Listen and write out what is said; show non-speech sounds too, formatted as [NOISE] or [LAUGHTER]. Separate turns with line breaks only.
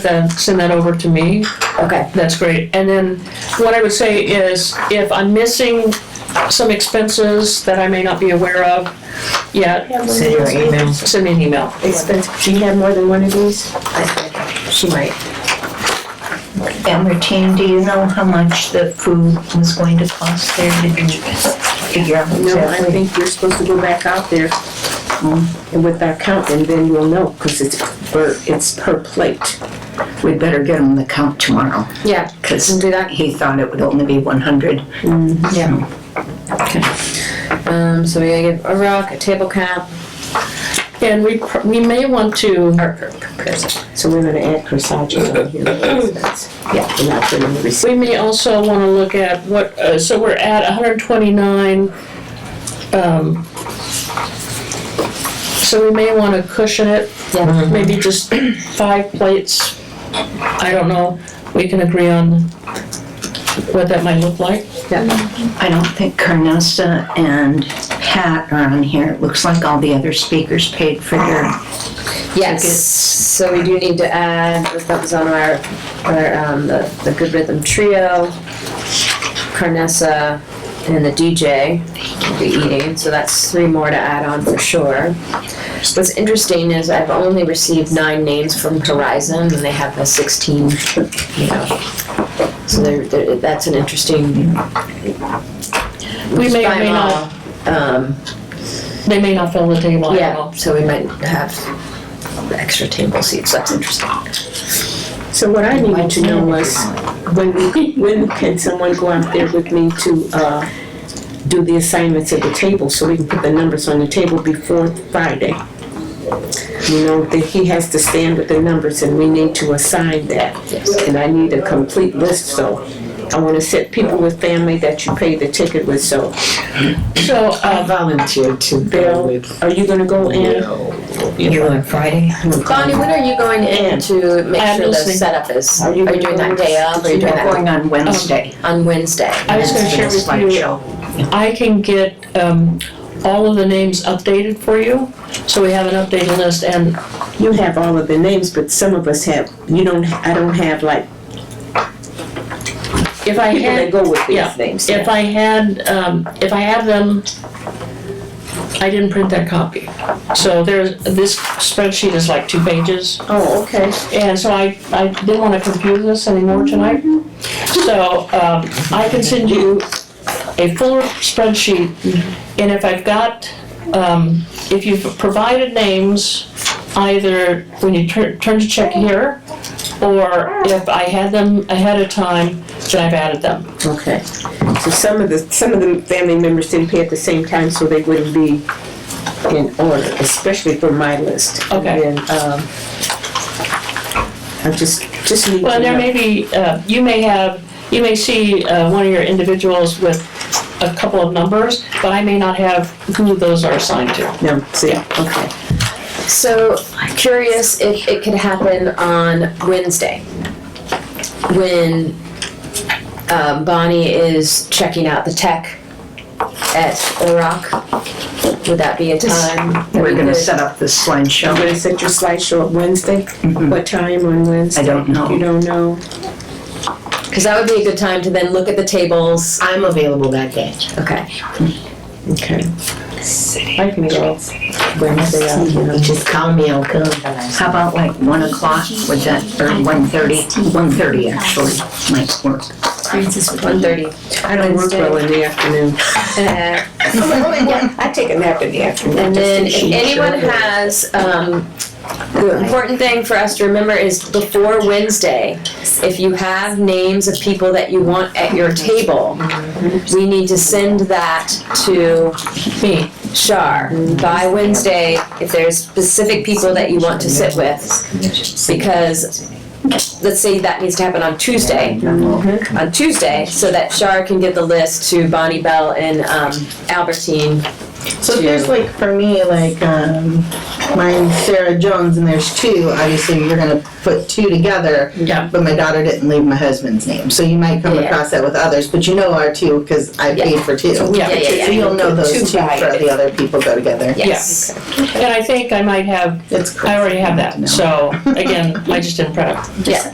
then send that over to me.
Okay,
That's great. And then what I would say is if I'm missing some expenses that I may not be aware of yet,
Send your email.
send me an email.
expensive, do you have more than one of these? She might.
And Martine, do you know how much the food was going to cost there? Did you figure out
No, I
exactly?
think you're supposed to go back out there um, and with our count, and then you'll know, because it's per, it's per plate.
We better get him the count tomorrow,
Yeah.
because
Do that.
he thought it would only be one hundred.
Um, so we gotta give a rock, a table count.
And we, pr- we may want to,
So we're gonna add corsages on here. Yeah, we're not putting the receipt.
we may also want to look at what, uh, so we're at 129. um, So we may want to cushion it,
Yeah.
maybe just five plates. I don't know. We can agree on what that might look like.
I don't think Carnesta and Pat are on here. It looks like all the other speakers paid for their,
Yes, so we do need to add, that was on our, our, um, the, the Good Rhythm Trio, Carnessa, and the DJ will be eating, E so that's three more to add on for sure. What's interesting is I've only received nine names from Horizon, and they have a sixteen, you know. So they're, they're, that's an interesting.
We may or
By
may
law,
not,
Um,
they may not fill the table, I don't
yeah,
know.
so we might have extra table seats, that's interesting.
So what I needed to know was, when, we- [LAUGHS] when can someone go out there with me to, uh, do the assignments at the table, so we can put the numbers on the table before Friday? You know, that he has to stand with the numbers, and we need to assign that. And I need a complete list, so I wanna set people with family that you pay the ticket with, so.
So, uh,
volunteer to
Bill, are you gonna go in?
You on Friday?
Bonnie, when are you going in to make
I'm
sure the
listening.
setup is?
Are
Are
you
you doing that day of, or are you doing
they're
that
going on Wednesday.
on Wednesday?
I was gonna share with you, I can get, um, all of the names updated for you, so we have an updated list, and
You have all of the names, but some of us have, you don't, I don't have like
if I
people that
had,
go with
Yeah.
these names.
if I had, um, if I have them, I didn't print that copy. So there's, this spreadsheet is like two pages,
Oh, okay.
and so I, I didn't wanna confuse this anymore tonight. So, um, I can send you a fuller spreadsheet, and if I've got, um, if you've provided names, either when you turn, turn to check here, or if I had them ahead of time, then I've added them.
Okay. So some of the, some of the family members didn't pay at the same time, so they wouldn't be in order, especially for my list. And
Okay.
then, um, I just, just need to
Well, there may
know.
be, uh, you may have, you may see, uh, one of your individuals with a couple of numbers, but I may not have who those are assigned to.
No, see,
Yeah.
okay.
So curious if it could happen on Wednesday, when um, Bonnie is checking out the tech at Orock. Would that be a time? that we
We're gonna
could-
set up this
I'm
[LAUGHS]
slideshow.
gonna set your slideshow up Wednesday.
Hmm.
Mhm.
What time on Wednesday?
I don't
You
know.
don't know?
Cause that would be a good time to then look at the tables.
I'm available that day.
Okay.
Okay. I can go Wednesday out, you know.
Just call me, I'll come.
How about like one o'clock, would that, or one thirty? One thirty actually might work.
One thirty.
I don't work well in the afternoon.
Uh,
I take a nap in the afternoon.
And
just
then
in
if
case.
anyone has, um, the important thing for us to remember is before Wednesday, if you have names of people that you want at your table, we need to send that to
Me.
Shar by Wednesday, if there's specific people that you want to sit with. Because, let's say that needs to happen on Tuesday, on Tuesday, so that Shar can get the list to Bonnie Bell and um, Albertine
So there's like, for me, like, um, mine's Sarah Jones and there's two, obviously you're gonna put two together.
Yeah.
But my daughter didn't leave my husband's name, so you might come
Yeah.
across that with others, but you know our two, cause I
Yeah.
paid for two. So
Yeah.
Yeah, yeah, yeah.
you'll know those two for the other people go together.
Yes.
And I think I might have,
It's cool.
I already have
No.
that, so, again, I just didn't print it.
Yeah.